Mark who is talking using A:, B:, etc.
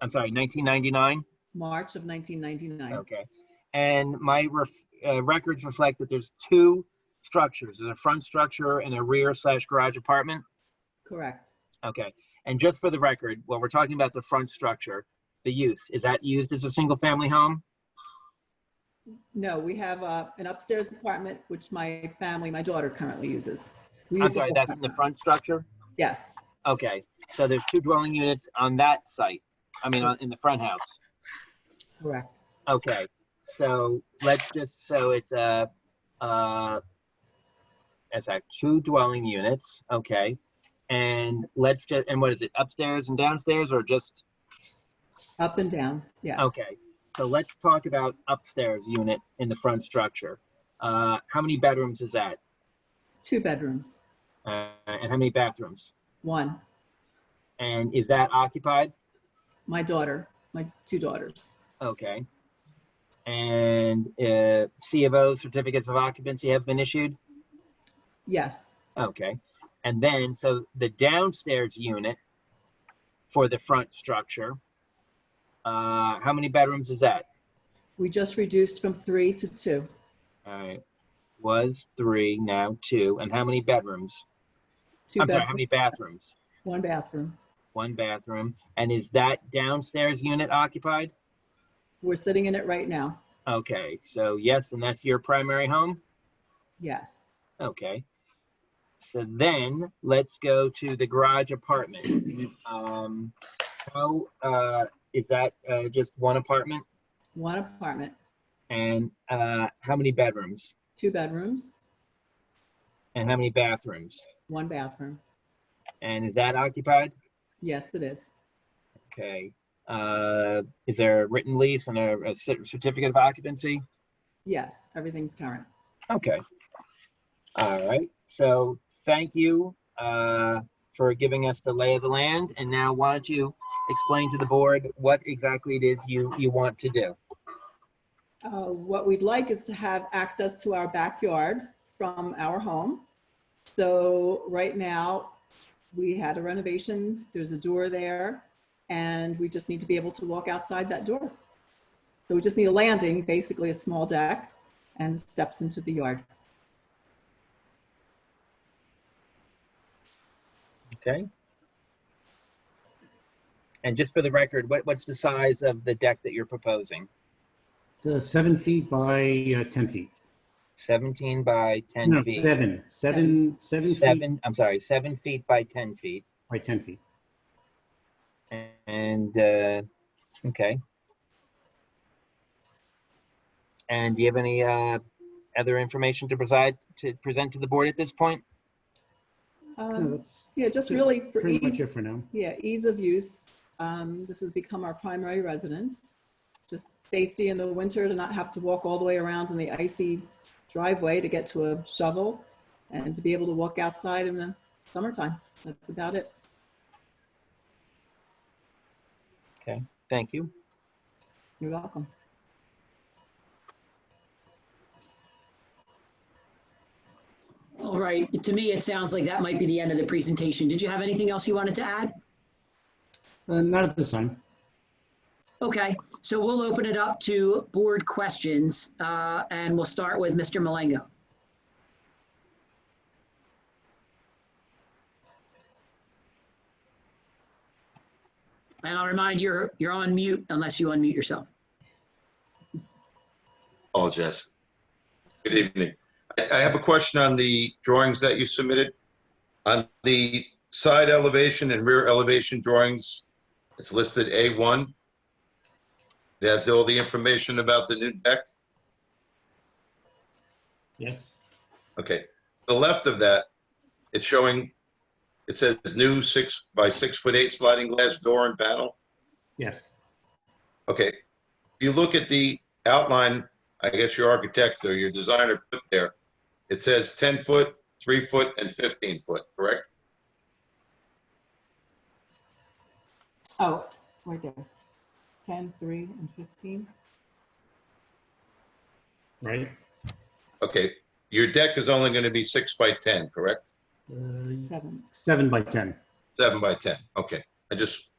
A: I'm sorry, 1999?
B: March of 1999.
A: Okay. And my ref- uh, records reflect that there's two structures, there's a front structure and a rear slash garage apartment?
B: Correct.
A: Okay. And just for the record, when we're talking about the front structure, the use, is that used as a single-family home?
B: No, we have uh, an upstairs apartment, which my family, my daughter currently uses. We
A: I'm
B: used to
A: sorry,
B: have-
A: that's in the front structure?
B: Yes,
A: Okay, so there's two dwelling units on that site, I mean, on- in the front house.
B: correct.
A: Okay, so let's just, so it's a, uh, it's like two dwelling units, okay? And let's just, and what is it, upstairs and downstairs or just,
B: Up and down, yes.
A: okay? So let's talk about upstairs unit in the front structure. Uh, how many bedrooms is that?
B: Two bedrooms,
A: Uh, and how many bathrooms?
B: one,
A: And is that occupied?
B: my daughter, my two daughters.
A: Okay. And uh, C of O certificates of occupancy have been issued?
B: Yes,
A: Okay. And then, so the downstairs unit for the front structure, uh, how many bedrooms is that?
B: we just reduced from three to two,
A: All right. Was three, now two. And how many bedrooms?
B: two
A: I'm sorry, how
B: bedrooms,
A: many bathrooms?
B: one bathroom.
A: One bathroom. And is that downstairs unit occupied?
B: We're sitting in it right now,
A: Okay. So, yes, and that's your primary home?
B: yes.
A: Okay. So then let's go to the garage apartment. Um, how, uh, is that, uh, just one apartment?
B: One apartment,
A: And, uh, how many bedrooms?
B: two bedrooms,
A: And how many bathrooms?
B: one bathroom.
A: And is that occupied?
B: Yes, it is.
A: Okay. Uh, is there a written lease and a, a cer- certificate of occupancy?
B: Yes, everything's current.
A: Okay. All right. So thank you, uh, for giving us the lay of the land. And now why don't you explain to the board what exactly it is you, you want to do?
B: Uh, What we'd like is to have access to our backyard from our home. So right now, we had a renovation, there's a door there, and we just need to be able to walk outside that door. So we just need a landing, basically a small deck, and steps into the yard.
A: Okay. And just for the record, what, what's the size of the deck that you're proposing?
C: It's uh, seven feet by uh, 10 feet.
A: 17 by 10
C: No,
A: feet?
C: seven, seven, seven feet
A: Seven, I'm sorry, seven feet by 10 feet.
C: by 10 feet.
A: And, uh, okay. And do you have any, uh, other information to preside, to present to the board at this point?
C: No,
B: Um,
C: Oh, that's
B: Yeah, just really for
C: pretty much it
B: ease,
C: for now.
B: yeah, ease of use. Um, This has become our primary residence. Just safety in the winter to not have to walk all the way around in the icy driveway to get to a shovel and to be able to walk outside in the summertime. That's about it.
A: Thank you.
B: You're welcome.
D: All right, to me, it sounds like that might be the end of the presentation. Did you have anything else you wanted to add?
C: Uh, Not at this time.
D: Okay, so we'll open it up to board questions, uh, and we'll start with Mr. Malengo. And I'll remind you, you're on mute unless you unmute yourself.
E: Oh, Jess. Good evening. I I have a question on the drawings that you submitted. On the side elevation and rear elevation drawings, it's listed A1. It has all the information about the new deck.
C: Yes.
E: Okay. The left of that, it's showing, it says new six by six foot eight sliding glass door and panel.
C: Yes.
E: Okay, you look at the outline, I guess your architect or your designer put there, it says 10 foot, 3 foot, and 15 foot, correct?
B: Oh, right there. 10, 3, and 15.
C: Right.
E: Okay, your deck is only going to be 6 by 10, correct?
C: Uh,
B: 7.
C: Seven by 10.
E: 7 by 10, okay. I just